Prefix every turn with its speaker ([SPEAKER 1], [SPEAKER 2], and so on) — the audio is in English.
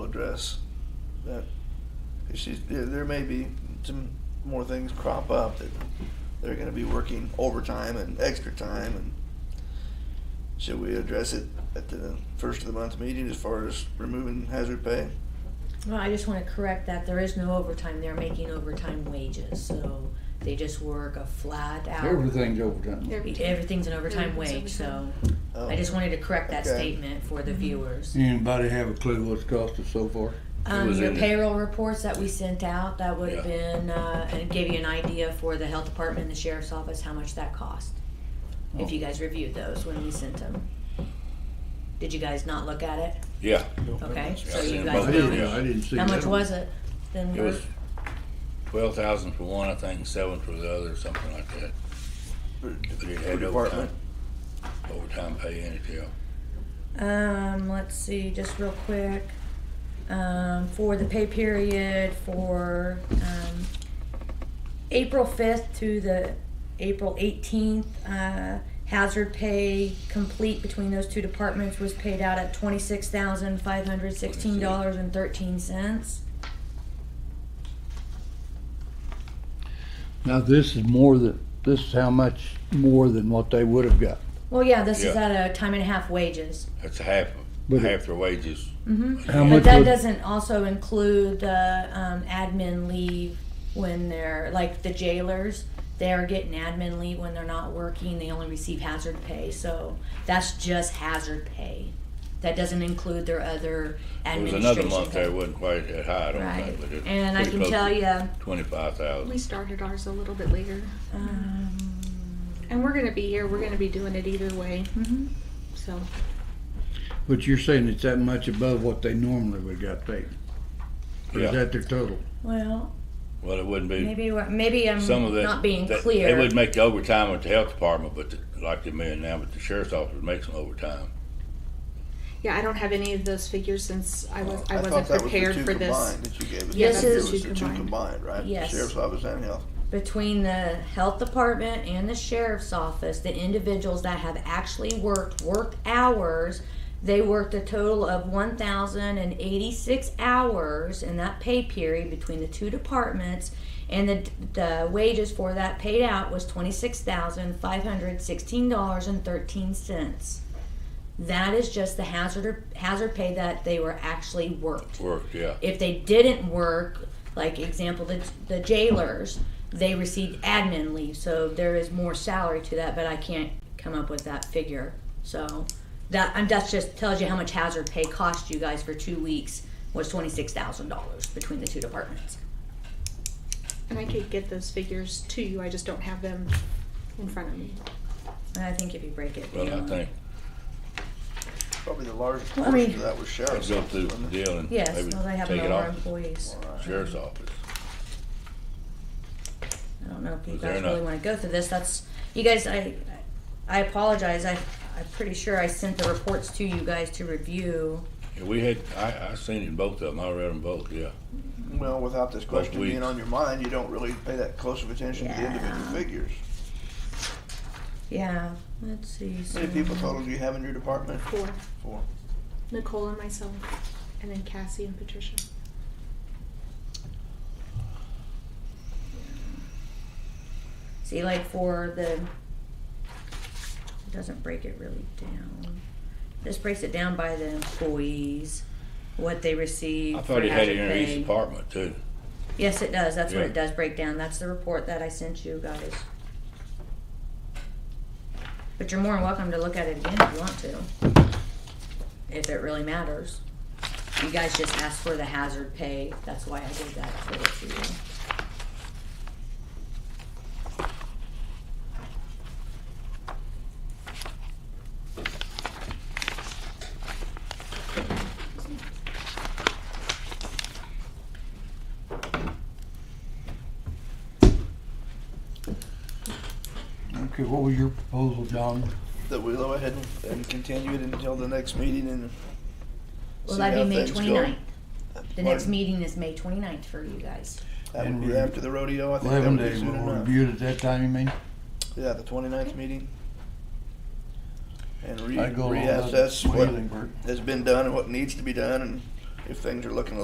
[SPEAKER 1] address that she's, there, there may be some more things crop up that they're gonna be working overtime and extra time and should we address it at the first of the month meeting as far as removing hazard pay?
[SPEAKER 2] Well, I just wanna correct that, there is no overtime, they're making overtime wages, so they just work a flat out.
[SPEAKER 3] Everything's overtime.
[SPEAKER 2] Everything's an overtime wage,
[SPEAKER 4] Everything's
[SPEAKER 2] so
[SPEAKER 4] overtime. Mm-hmm.
[SPEAKER 1] Oh,
[SPEAKER 2] I just wanted to correct that
[SPEAKER 1] Okay.
[SPEAKER 2] statement for the viewers.
[SPEAKER 3] Anybody have a clue what's cost us so far?
[SPEAKER 2] Um,
[SPEAKER 5] was
[SPEAKER 2] your
[SPEAKER 5] in the-
[SPEAKER 2] payroll reports that we sent out, that would have
[SPEAKER 5] Yeah.
[SPEAKER 2] been, uh, and gave you an idea for the health department and the sheriff's office, how much that cost.
[SPEAKER 3] Oh.
[SPEAKER 2] If you guys reviewed those when we sent them. Did you guys not look at it?
[SPEAKER 5] Yeah,
[SPEAKER 2] Okay,
[SPEAKER 5] Yeah,
[SPEAKER 2] so
[SPEAKER 5] I
[SPEAKER 2] you
[SPEAKER 5] seen
[SPEAKER 2] guys
[SPEAKER 5] both.
[SPEAKER 2] know.
[SPEAKER 5] Yeah.
[SPEAKER 3] didn't see
[SPEAKER 2] How much
[SPEAKER 3] that.
[SPEAKER 2] was it then?
[SPEAKER 5] it
[SPEAKER 2] Bert?
[SPEAKER 5] was twelve thousand for one, I think, seven for the other, something like that.
[SPEAKER 1] for-
[SPEAKER 5] But it
[SPEAKER 1] for
[SPEAKER 5] had overtime,
[SPEAKER 1] department.
[SPEAKER 5] overtime pay in it, yeah.
[SPEAKER 2] Um, let's see, just real quick, um, for the pay period for, um, April fifth to the April eighteenth, uh, hazard pay complete between those two departments was paid out at twenty-six thousand five hundred sixteen dollars and thirteen cents.
[SPEAKER 3] Now, this is more than, this is how much more than what they would have got.
[SPEAKER 2] Well, yeah, this is
[SPEAKER 5] Yeah.
[SPEAKER 2] at a time and a half wages.
[SPEAKER 5] That's half,
[SPEAKER 3] But it-
[SPEAKER 5] half their wages.
[SPEAKER 2] Mm-hmm.
[SPEAKER 3] How
[SPEAKER 2] But
[SPEAKER 3] much
[SPEAKER 2] that
[SPEAKER 3] would-
[SPEAKER 2] doesn't also include the um, admin leave when they're, like the jailers, they're getting admin leave when they're not working, they only receive hazard pay, so that's just hazard pay. That doesn't include their other
[SPEAKER 5] There was
[SPEAKER 2] administration.
[SPEAKER 5] another month there, it
[SPEAKER 2] pay.
[SPEAKER 5] wasn't quite that high, I don't
[SPEAKER 2] Right,
[SPEAKER 5] think, but it.
[SPEAKER 2] and I can tell you,
[SPEAKER 5] Twenty-five
[SPEAKER 4] We
[SPEAKER 5] thousand,
[SPEAKER 4] started ours a little bit later,
[SPEAKER 2] um,
[SPEAKER 4] and we're gonna be here. We're gonna be doing it either way. So
[SPEAKER 3] But you're saying it's that much above what they normally would got paid? Or is
[SPEAKER 5] yeah.
[SPEAKER 3] that their total?
[SPEAKER 2] well,
[SPEAKER 5] Well, it wouldn't be,
[SPEAKER 2] maybe, we're- maybe I'm
[SPEAKER 5] some of that.
[SPEAKER 2] not being
[SPEAKER 5] that-
[SPEAKER 2] clear.
[SPEAKER 5] They would make the overtime with the health department, but the- like they may now, but the sheriff's office makes some overtime.
[SPEAKER 4] yeah, I don't have any of those figures since I was I,
[SPEAKER 1] Oh, thought
[SPEAKER 4] wasn't
[SPEAKER 1] that was the
[SPEAKER 4] prepared
[SPEAKER 1] two
[SPEAKER 4] for this.
[SPEAKER 1] combined That you gave us.
[SPEAKER 4] Yeah,
[SPEAKER 2] This
[SPEAKER 1] It
[SPEAKER 2] is-
[SPEAKER 1] was the two combined, right?
[SPEAKER 2] Yes.
[SPEAKER 1] Sheriff's office and health.
[SPEAKER 2] between the health department and the sheriff's office, the individuals that have actually worked work hours, they worked a total of one thousand and eighty-six hours in that pay period between the two departments, and the the wages for that paid out was twenty-six thousand five hundred sixteen dollars and thirteen cents. That is just the hazard hazard pay that they were actually worked
[SPEAKER 5] Worked, yeah.
[SPEAKER 2] if they didn't work, like example, the, the jailers, they received admin leave, so there is more salary to that, but I can't come up with that figure. So that and that just tells you how much hazard pay cost you guys for two weeks was twenty six thousand dollars between the two departments.
[SPEAKER 4] And I could get those figures to you. I just don't have them in front of me.
[SPEAKER 2] And I think if you break it
[SPEAKER 5] Well, I
[SPEAKER 2] down-
[SPEAKER 5] think
[SPEAKER 1] Probably the largest
[SPEAKER 2] Well, I
[SPEAKER 1] portion
[SPEAKER 2] mean-
[SPEAKER 1] of that was
[SPEAKER 5] I'll
[SPEAKER 1] sheriff's.
[SPEAKER 5] go through
[SPEAKER 1] office,
[SPEAKER 5] the
[SPEAKER 1] wasn't it?
[SPEAKER 5] deal and
[SPEAKER 2] Yes,
[SPEAKER 5] maybe
[SPEAKER 2] well, they have
[SPEAKER 5] take
[SPEAKER 2] no
[SPEAKER 5] it
[SPEAKER 2] more
[SPEAKER 5] off
[SPEAKER 2] employees.
[SPEAKER 5] the sheriff's office.
[SPEAKER 2] I don't know if you
[SPEAKER 5] Was there
[SPEAKER 2] guys really
[SPEAKER 5] enough?
[SPEAKER 2] want to go through this. That's you guys. I I apologize. I I'm pretty sure I sent the reports to you guys to review.
[SPEAKER 5] Yeah, we had, I, I seen it in both of them, I read them both, yeah.
[SPEAKER 1] Well, without this question being
[SPEAKER 5] weeks.
[SPEAKER 1] on your mind, you don't really pay that close of attention to the individual
[SPEAKER 2] Yeah.
[SPEAKER 1] figures.
[SPEAKER 2] Yeah. Let's see.
[SPEAKER 1] How many
[SPEAKER 2] so-
[SPEAKER 1] people total do you have in your department?
[SPEAKER 4] Four,
[SPEAKER 1] Four.
[SPEAKER 4] Nicole and myself, and then Cassie and Patricia.
[SPEAKER 2] See, like for the, it doesn't break it really down. This breaks it down by the employees, what they receive.
[SPEAKER 5] I
[SPEAKER 2] for
[SPEAKER 5] thought it had it
[SPEAKER 2] hazard
[SPEAKER 5] in each
[SPEAKER 2] pay.
[SPEAKER 5] department too.
[SPEAKER 2] Yes, it does. That's what
[SPEAKER 5] Yeah.
[SPEAKER 2] it does break down. That's the report that I sent you guys. But you're more than welcome to look at it again if you want to. If it really matters. You guys just asked for the hazard pay. That's why I did that for the for you.
[SPEAKER 3] Okay, what was your proposal, John?
[SPEAKER 1] That we go ahead and- and continue it until the next meeting and.
[SPEAKER 2] Will
[SPEAKER 1] see
[SPEAKER 2] that
[SPEAKER 1] how
[SPEAKER 2] be May
[SPEAKER 1] things go.
[SPEAKER 2] 29th? The next
[SPEAKER 1] Pardon?
[SPEAKER 2] meeting is May 29th for you guys.
[SPEAKER 1] That
[SPEAKER 3] And
[SPEAKER 1] would be
[SPEAKER 3] we-
[SPEAKER 1] after the rodeo, I think that
[SPEAKER 3] Eleven
[SPEAKER 1] would be
[SPEAKER 3] days,
[SPEAKER 1] soon
[SPEAKER 3] we'll
[SPEAKER 1] enough.
[SPEAKER 3] review it at that time, you mean?
[SPEAKER 1] Yeah, the twenty-ninth meting. And re-
[SPEAKER 3] I go along with
[SPEAKER 1] reassess
[SPEAKER 3] what
[SPEAKER 1] what
[SPEAKER 3] you think, Bert.
[SPEAKER 1] has been done and what needs to be done and if things are looking a